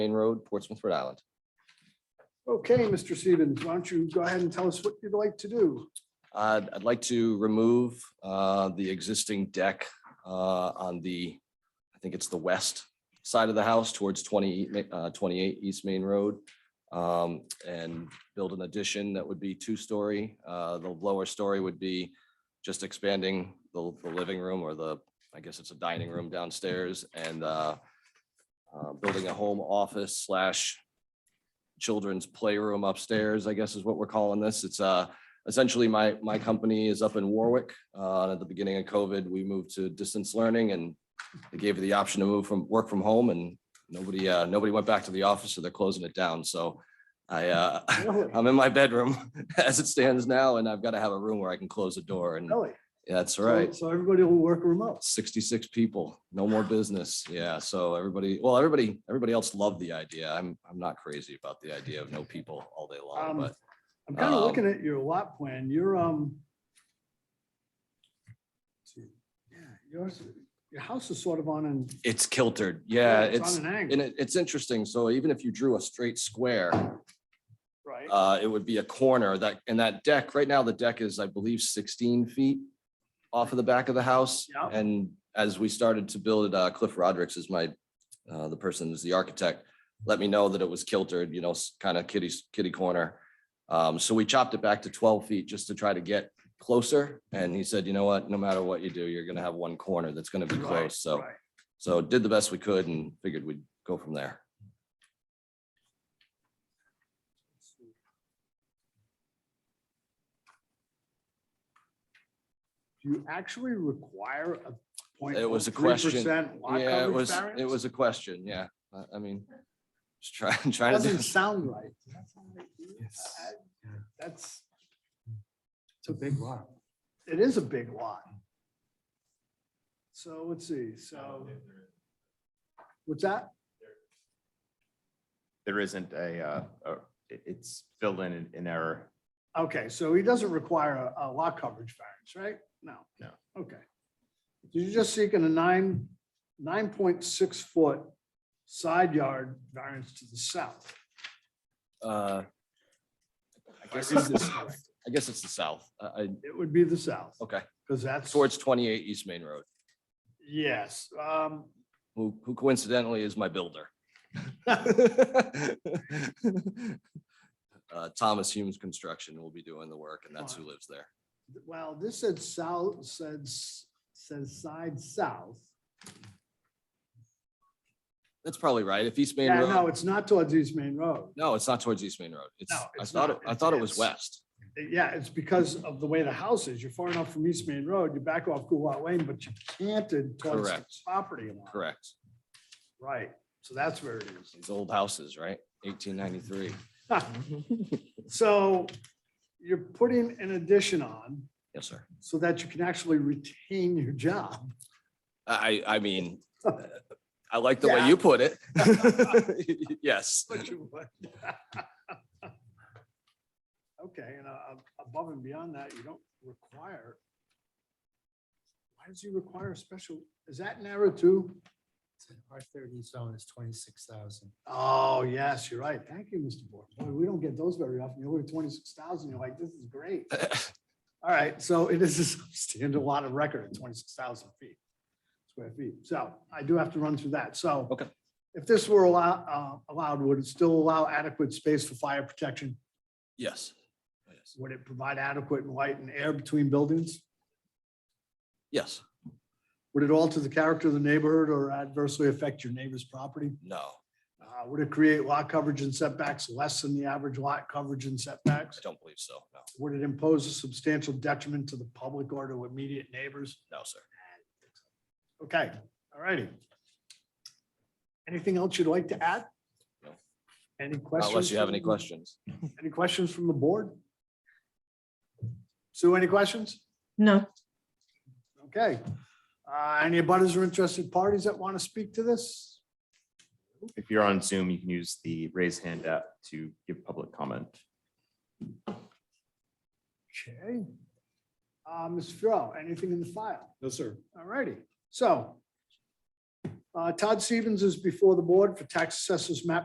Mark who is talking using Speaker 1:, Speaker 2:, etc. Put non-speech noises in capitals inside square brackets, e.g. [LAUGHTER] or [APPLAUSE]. Speaker 1: Main Road, Portsmouth, Rhode Island.
Speaker 2: Okay, Mr. Stevens, why don't you go ahead and tell us what you'd like to do?
Speaker 1: I'd, I'd like to remove uh, the existing deck uh, on the, I think it's the west side of the house towards 20, E- uh, 28 East Main Road. um, And build an addition that would be two-story. Uh, The lower story would be just expanding the, the living room or the, I guess it's a dining room downstairs and uh, uh, building a home office slash children's playroom upstairs, I guess is what we're calling this. It's uh essentially my, my company is up in Warwick. Uh, and at the beginning of COVID, we moved to distance learning and they gave you the option to move from, work from home and nobody, uh, nobody went back to the office, so they're closing it down. So I, uh,
Speaker 2: Really?
Speaker 1: I'm in my bedroom [LAUGHS] as it stands now and I've got to have a room where I can close the door and
Speaker 2: Really?
Speaker 1: that's
Speaker 2: So-
Speaker 1: right.
Speaker 2: So everybody will work remote.
Speaker 1: Sixty-six people, no more business. Yeah, so everybody, well, everybody, everybody else loved the idea. I'm, I'm not crazy about the idea of no people all day long,
Speaker 2: Um,
Speaker 1: but
Speaker 2: I'm kind of
Speaker 1: Um,
Speaker 2: looking at your lot plan. You're, um, let's see. yeah, yours, your house is sort of on an.
Speaker 1: it's kiltered. Yeah, it's.
Speaker 2: On an angle,
Speaker 1: And it, it's interesting. So even if you drew a straight square,
Speaker 2: right?
Speaker 1: uh, it would be a corner that, and that deck, right now, the deck is, I believe, sixteen feet off of the back of the house.
Speaker 2: Yeah.
Speaker 1: And as we started to build it, uh, Cliff Rodericks is my, uh, the person who's the architect, let me know that it was kiltered, you know, kind of kitty, kitty corner. Um, so we chopped it back to twelve feet just to try to get closer. And he said, you know what, no matter what you do, you're gonna have one corner that's gonna be
Speaker 2: Right,
Speaker 1: close. So,
Speaker 2: right.
Speaker 1: so did the best we could and figured we'd go from there.
Speaker 2: Do you actually require a point?
Speaker 1: It was a question. Yeah, it
Speaker 2: Lot
Speaker 1: was,
Speaker 2: coverage
Speaker 1: it
Speaker 2: variance?
Speaker 1: was a question, yeah. I, I mean, just [LAUGHS] trying, trying to, do-
Speaker 2: Doesn't sound right. Does that sound right to you?
Speaker 3: Yes.
Speaker 2: I- I- That's,
Speaker 3: It's a big lot.
Speaker 2: it is a big lot. So let's see, so. What's that?
Speaker 4: there isn't a, uh, a- it- it's filled in an- an error.
Speaker 2: Okay, so he doesn't require a- a lot coverage variance, right? No.
Speaker 4: No.
Speaker 2: Okay. So You're just seeking a nine, nine point six foot side yard variance to the south.
Speaker 1: uh, I guess it's,
Speaker 2: [LAUGHS]
Speaker 1: the- I guess it's the south, I, I-
Speaker 2: It would be the south,
Speaker 1: okay,
Speaker 2: because that's.
Speaker 1: towards twenty-eight East Main Road,
Speaker 2: Yes, um,
Speaker 1: who, who coincidentally is my
Speaker 2: [LAUGHS]
Speaker 1: builder. Uh, Thomas Humes Construction will be doing the work and that's who lives there.
Speaker 2: well, this said south, says, says side south.
Speaker 1: That's probably right. If East Main
Speaker 2: Yeah, no,
Speaker 1: Road,
Speaker 2: it's not towards East Main Road.
Speaker 1: no, it's not towards East Main Road. It's,
Speaker 2: No,
Speaker 1: I
Speaker 2: it's
Speaker 1: thought,
Speaker 2: not.
Speaker 1: it- I
Speaker 2: It's-
Speaker 1: thought it was
Speaker 2: it's-
Speaker 1: west.
Speaker 2: Yeah, it's because of the way the house is. You're far enough from East Main Road, you back off Gulat Lane, but you're canted towards the
Speaker 1: Correct.
Speaker 2: property line.
Speaker 1: Correct.
Speaker 2: Right, so that's where it is.
Speaker 1: These old houses, right? Eighteen ninety-three.
Speaker 2: So you're putting an addition on
Speaker 1: Yes, sir.
Speaker 2: so that you can actually retain your job.
Speaker 1: I, I mean, I like the
Speaker 2: Yeah.
Speaker 1: way you put
Speaker 2: [LAUGHS]
Speaker 1: it. [LAUGHS] Yes. [LAUGHS]
Speaker 2: But you would. [LAUGHS] Okay, and uh, above and beyond that, you don't require. Why does he require a special, is that narrow too?
Speaker 3: Our thirty zone is twenty-six thousand.
Speaker 2: Oh, yes, you're right. Thank you, Mr. Board. Boy, we don't get those very often. You look at twenty-six thousand, you're like, this is great. All right, so it is a standard [LAUGHS] lot of record at twenty-six thousand feet, square feet. So I do have to run through that. So.
Speaker 1: Okay.
Speaker 2: If this were allowed, uh, allowed, would it still allow adequate space for fire protection?
Speaker 1: Yes.
Speaker 2: Would it provide adequate light and air between buildings?
Speaker 1: Yes.
Speaker 2: Would it alter the character of the neighborhood or adversely affect your neighbor's property?
Speaker 1: No,
Speaker 2: Uh, would it create lot coverage and setbacks less than the average lot coverage and
Speaker 1: I
Speaker 2: setbacks?
Speaker 1: don't believe so. No,
Speaker 2: Would it impose a substantial detriment to the public or to immediate neighbors?
Speaker 1: no, sir.
Speaker 2: Okay, all righty. Anything else you'd like to add?
Speaker 1: No.
Speaker 2: Any
Speaker 1: Not
Speaker 2: questions?
Speaker 1: Unless you have
Speaker 2: from-
Speaker 1: any questions.
Speaker 2: Any questions from the board? Sue, any questions?
Speaker 5: No,
Speaker 2: Okay. Uh, Any abutters or interested parties that want to speak to this?
Speaker 4: If you're on Zoom, you can use the raise hand app to give public comment.
Speaker 2: Okay. Uh, Ms. Farrell, anything in the file?
Speaker 3: No, sir.
Speaker 2: All righty, so. uh, Todd Stevens is before the board for tax assessors map